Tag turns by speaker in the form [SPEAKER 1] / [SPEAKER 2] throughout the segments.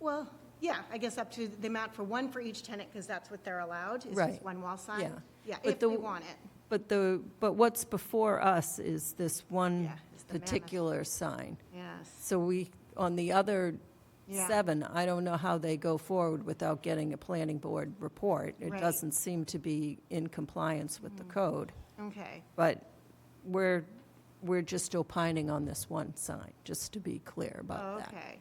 [SPEAKER 1] Well, yeah, I guess up to the amount for one for each tenant, because that's what they're allowed, is just
[SPEAKER 2] Right.
[SPEAKER 1] one wall sign.
[SPEAKER 2] Yeah.
[SPEAKER 1] Yeah,
[SPEAKER 2] But
[SPEAKER 1] if they
[SPEAKER 2] the-
[SPEAKER 1] want it.
[SPEAKER 2] But the, but what's before us is this one
[SPEAKER 1] Yeah, it's the mammoth.
[SPEAKER 2] Mm. particular sign.
[SPEAKER 1] Yes,
[SPEAKER 2] So we, on the other
[SPEAKER 1] Yeah.
[SPEAKER 2] seven, I don't know how they go forward without getting a planning board report. It
[SPEAKER 1] Right. Mm.
[SPEAKER 2] doesn't seem to be in compliance with the code.
[SPEAKER 1] okay,
[SPEAKER 2] But we're, we're just opining on this one sign, just to be clear about that.
[SPEAKER 1] Oh, okay.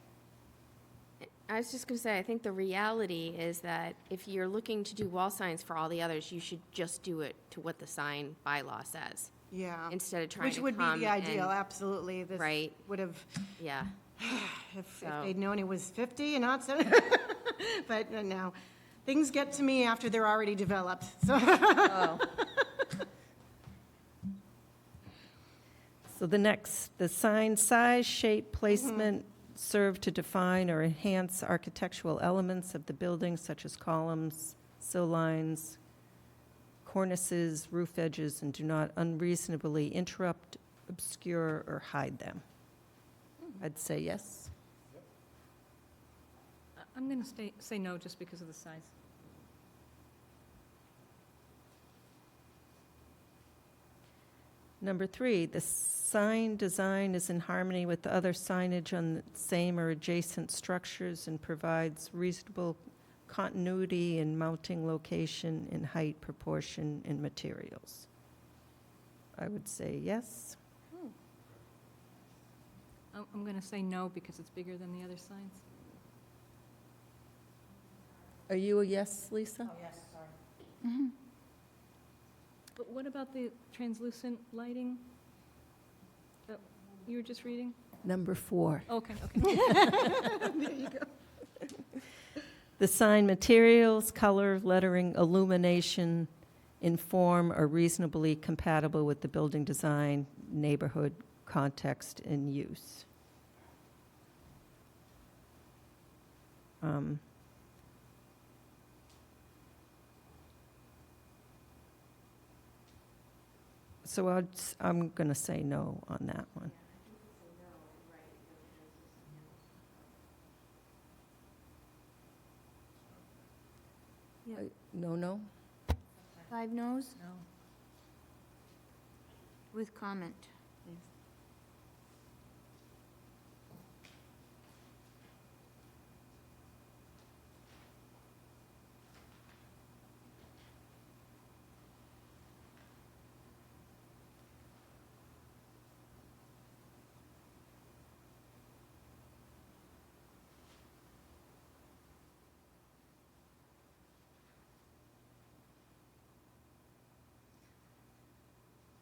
[SPEAKER 3] I was just going to say, I think the reality is that if you're looking to do wall signs for all the others, you should just do it to what the sign bylaw says,
[SPEAKER 1] Yeah.
[SPEAKER 3] instead of trying
[SPEAKER 1] Oh. Which
[SPEAKER 3] to
[SPEAKER 1] would be
[SPEAKER 3] come
[SPEAKER 1] the ideal,
[SPEAKER 3] and-
[SPEAKER 1] absolutely. This
[SPEAKER 3] Right.
[SPEAKER 1] Would have,
[SPEAKER 3] Yeah,
[SPEAKER 1] if- if
[SPEAKER 3] So-
[SPEAKER 1] they'd known it was 50 and not 70, but uh, no. Things get to me after they're already developed, so.
[SPEAKER 2] So the next, the sign size, shape, placement serve to define or enhance architectural elements of the building such as columns, sill lines, cornices, roof edges, and do not unreasonably interrupt, obscure, or hide them. I'd say yes.
[SPEAKER 4] I'm going to stay, say no just because of the size.
[SPEAKER 2] Number three, the sign design is in harmony with the other signage on the same or adjacent structures and provides reasonable continuity in mounting location, in height, proportion, and materials. I would say yes.
[SPEAKER 4] I'm, I'm going to say no because it's bigger than the other signs.
[SPEAKER 2] Are you a yes, Lisa?
[SPEAKER 4] But what about the translucent lighting that you were just reading?
[SPEAKER 2] Number four.
[SPEAKER 4] Okay, okay.
[SPEAKER 2] The sign materials, color, lettering, illumination in form are reasonably compatible with the building design, neighborhood, context, and use. Um, So I'd, s- I'm going to say no on that one. No, no?
[SPEAKER 5] Five noes
[SPEAKER 4] No.
[SPEAKER 5] with comment.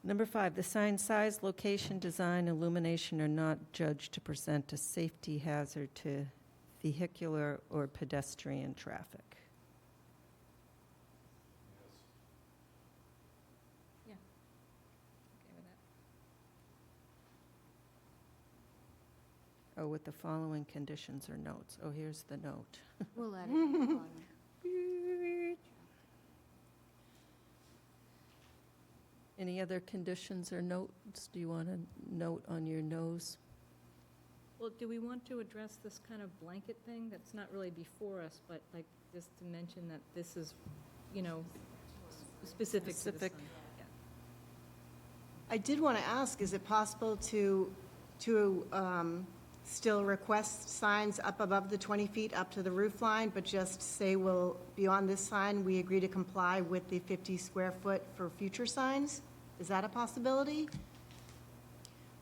[SPEAKER 2] Number five, the sign size, location, design, illumination are not judged to present a safety hazard to vehicular or pedestrian traffic.
[SPEAKER 4] Okay with that.
[SPEAKER 2] Oh, with the following conditions or notes. Oh, here's the note.
[SPEAKER 5] We'll add it. at the bottom.
[SPEAKER 2] Any other conditions or notes? Do you want a note on your nose?
[SPEAKER 4] Well, do we want to address this kind of blanket thing that's not really before us, but like just to mention that this is, you know, s- specific to the
[SPEAKER 2] Specific.
[SPEAKER 4] sign? Yeah.
[SPEAKER 1] I did want to ask, is it possible to, to um, still request signs up above the 20 feet, up to the roof line, but just say, well, beyond this sign, we agree to comply with the 50 square foot for future signs? Is that a possibility?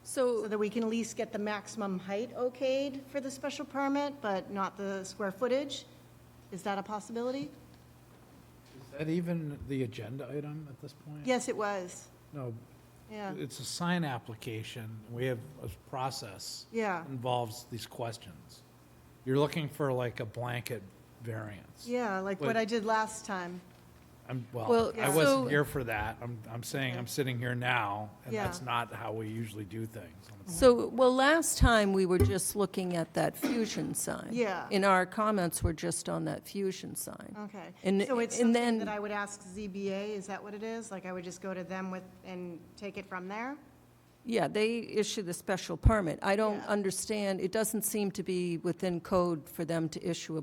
[SPEAKER 1] So that we can at least get the maximum height okayed for the special permit, but not the square footage? Is that a possibility?
[SPEAKER 6] Is that even the agenda item at this point?
[SPEAKER 1] Yes, it was.
[SPEAKER 6] No,
[SPEAKER 1] Yeah,
[SPEAKER 6] it's a sign application. We have a process.
[SPEAKER 1] Yeah.
[SPEAKER 6] Involves these questions. You're looking for like a blanket variance.
[SPEAKER 1] yeah, like what I did last time.
[SPEAKER 6] I'm,
[SPEAKER 2] Well,
[SPEAKER 6] well, I
[SPEAKER 2] so-
[SPEAKER 6] wasn't here for that. I'm, I'm saying I'm sitting here now, and
[SPEAKER 1] Yeah.
[SPEAKER 6] that's not how we usually do things.
[SPEAKER 2] So, well, last time, we were just looking at that fusion sign.
[SPEAKER 1] Yeah.
[SPEAKER 2] And our comments were just on that fusion sign.
[SPEAKER 1] Okay,
[SPEAKER 2] And-
[SPEAKER 1] so it's something
[SPEAKER 2] and then-
[SPEAKER 1] that I would ask ZBA, is that what it is? Like, I would just go to them with, and take it from there?
[SPEAKER 2] Yeah, they issue the special permit. I don't
[SPEAKER 1] Yeah.
[SPEAKER 2] understand, it doesn't seem to be within code for them to issue a